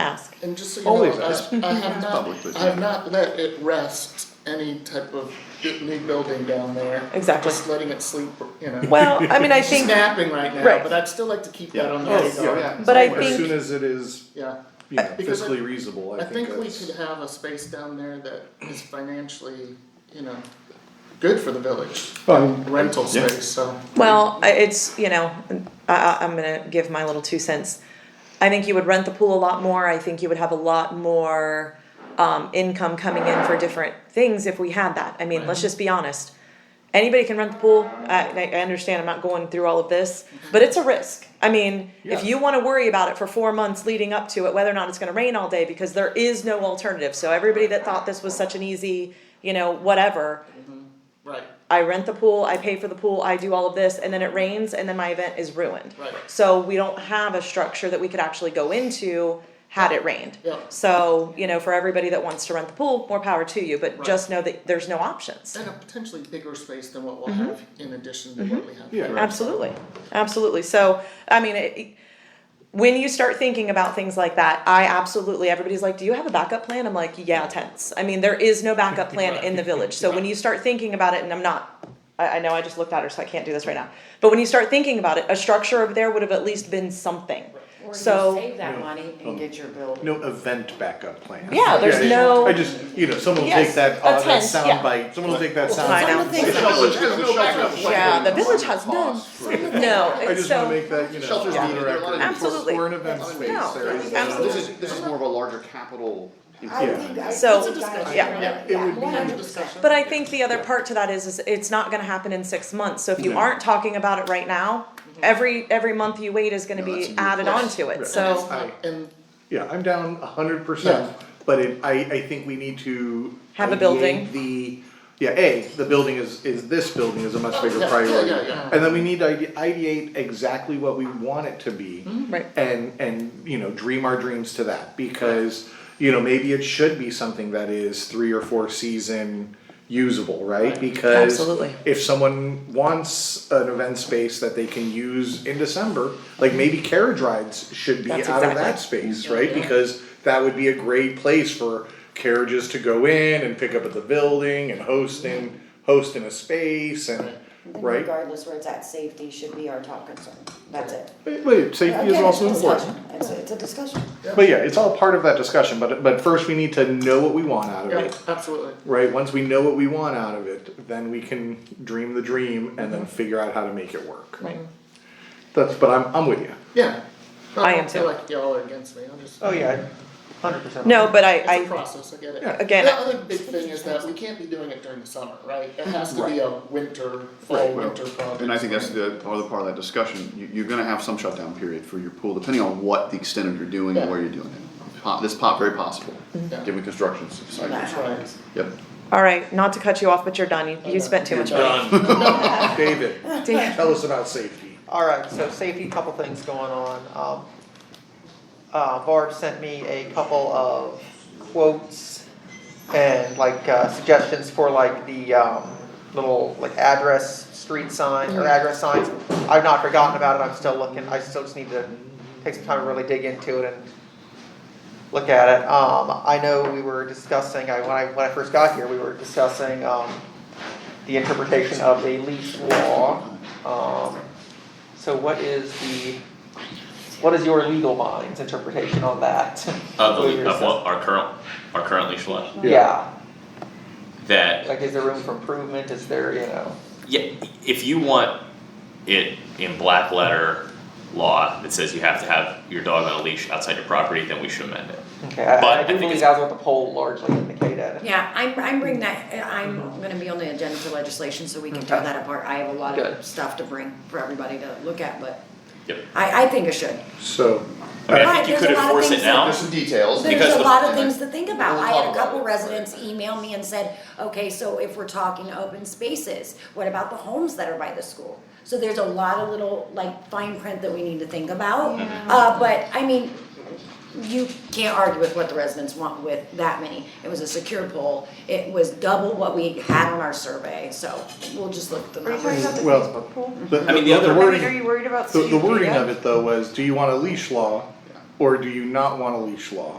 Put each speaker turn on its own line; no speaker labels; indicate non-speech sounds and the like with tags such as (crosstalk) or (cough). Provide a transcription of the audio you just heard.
ask.
And just so you
Always
know,
ask.
I,
(laughs)
I have
publicly.
not, I have not let it rest any type of new building down there.
Exactly.
Just letting it sleep, you know.
Well, I mean, I
It's
think,
napping right now,
Right.
but I'd still like to keep that
Yeah.
on the
Oh,
radar.
yeah, yeah.
But I
As
think-
soon as it is,
Yeah,
you know,
Because I-
fiscally reasonable,
I
I think
think we
that's.
could have a space down there that is financially, you know, good for the village,
Well,
rental
Yeah.
space, so.
well, I- it's, you know, I, I, I'm gonna give my little two cents. I think you would rent the pool a lot more, I think you would have a lot more, um, income coming in for different things if we had that, I mean, let's just be honest. Anybody can rent the pool, I, I I understand, I'm not going through all of this, but it's a risk. I mean, if
Yeah.
you wanna worry about it for four months leading up to it, whether or not it's gonna rain all day, because there is no alternative, so everybody that thought this was such an easy, you know, whatever,
Right,
I rent the pool, I pay for the pool, I do all of this, and then it rains, and then my event is ruined.
Right.
So we don't have a structure that we could actually go into had it rained.
Yeah.
So, you know, for everybody that wants to rent the pool, more power to you, but just know that there's no options.
and a potentially bigger space than what we'll have in addition to what we have.
Mm-hmm. Yeah.
now.
Mm-hmm. Absolutely, absolutely. So, I mean, it, it- when you start thinking about things like that, I absolutely, everybody's like, do you have a backup plan? I'm like, yeah, tents. I mean, there is no backup plan in the village. So when you start thinking about it, and I'm not, I, I know I just looked at her, so I can't do this right now. But when you start thinking about it, a structure over there would have at least been something.
Or you
So,
save that money and get your building.
Um, No event backup plan.
Yeah, there's no-
I just, you know, someone will
Yes,
take that,
a
uh, that
tent, yeah.
sound bite, someone will take that sound
I
bite.
know.
The shelters- the shelters-
yeah, the village has none.
cost, right?
No,
I
it's
just wanna
so,
make that, you know.
Shelters
on
need
the
it.
record.
Absolutely.
For an event space,
No,
there is.
absolutely.
This is, this is more of a larger capital.
I
Yeah.
think that-
So,
it's a discussion,
yeah.
really.
Yeah, it would be-
one hundred percent.
but I think the other part to that is, is it's not gonna happen in six months. So if you
No.
aren't talking about it right now, every, every month you wait is gonna
No, that's a
be
moot
added
point.
onto it,
Right.
so.
I-
And
Yeah, I'm down a hundred percent, but it, I, I think we need to.
Have a building.
ideate The, yeah, A, the building is, is, this building is a much bigger
Oh, yeah, yeah,
priority.
yeah, yeah.
And then we need to ide- ideate exactly what we want it to be.
Right.
And, and, you know, dream our dreams to that, because, you know, maybe it should be something that is three or four season usable, right? Because.
Absolutely.
If someone wants an event space that they can use in December, like maybe carriage rides should be out of
That's
that
exactly.
space, right? Because that would be a great place for carriages to go in and pick up at the building and host in, host in a space and, right?
Regardless where it's at, safety should be our top concern, that's it.
Wait, wait, safety is
Again, it's a
also important.
discussion. It's, a- it's a discussion.
But yeah, it's all part of that discussion, but, but first we need to know what we want out of
yeah,
it,
absolutely.
right? Once we know what we want out of it, then we can dream the dream and
Mm-hmm.
then figure out how to make it work.
Right.
That's, but I'm, I'm with you.
Yeah.
I am
don't feel
too.
like y'all are against me, I'm just.
yeah, hundred percent.
No, but I,
It's a
I,
process, I get it.
Yeah.
Again,
The
I-
other big thing is that we can't be doing it during the summer, right? It has to be
Right.
a winter, fall, winter project.
And I think that's the other part of that discussion, you, you're gonna have some shutdown period for your pool, depending on what the extent of you're doing and where you're doing it. Po- This pop, very possible,
Yeah.
given construction
That's
cycles,
right.
yep.
all right, not to cut you off, but you're done. You, you spent too much money.
(laughs)
(laughs) David,
Damn.
tell us about safety.
Alright, so safety, couple things going on. Um, uh, Barb sent me a couple of quotes and like uh, suggestions for like the um, little like address, street sign or address signs. I've not forgotten about it, I'm still looking, I still just need to take some time to really dig into it and look at it. Um, I know we were discussing, I, when I, when I first got here, we were discussing um, the interpretation of the lease law. Um, so what is the, what is your legal mind's interpretation on that? (laughs)
Of
What are
the,
your
of what, our current, our current leash law,
assess- Yeah,
that,
like is there room for improvement, is there, you know,
yeah, if you want it in black letter law that says you have to have your dog on a leash outside your property, then we should amend it.
okay, I- I
But I
do
think
believe
it's-
that's what the poll largely indicated.
Yeah, I'm, I'm bringing that, I'm gonna be on the agenda for legislation, so we can tear
Okay.
that apart. I have a lot
Good.
of stuff to bring for everybody to look at, but
Yep.
I, I think it should.
So,
I mean, I
Right,
think you
there's a
could
lot of
enforce it
things that-
now,
There's some details.
There's
Because
a
the-
lot of things to think about. I had
We'll
a
talk
couple
about it, right.
residents email me and said, okay, so if we're talking open spaces, what about the homes that are by the school? So there's a lot of little, like, fine print that we need to think about. Uh, but, I mean, you can't argue with what the residents want with that many. It was a secure poll. It was double what we had on our survey, so we'll just look at the
Are you talking
numbers.
about the
Well,
Facebook pool?
the,
I mean, the
the- the
other-
I mean, Mm-hmm. are
wording,
you worried about
the, the
CUP
wording
yet?
of it though was, do you want a leash law? Or do you not want a leash law?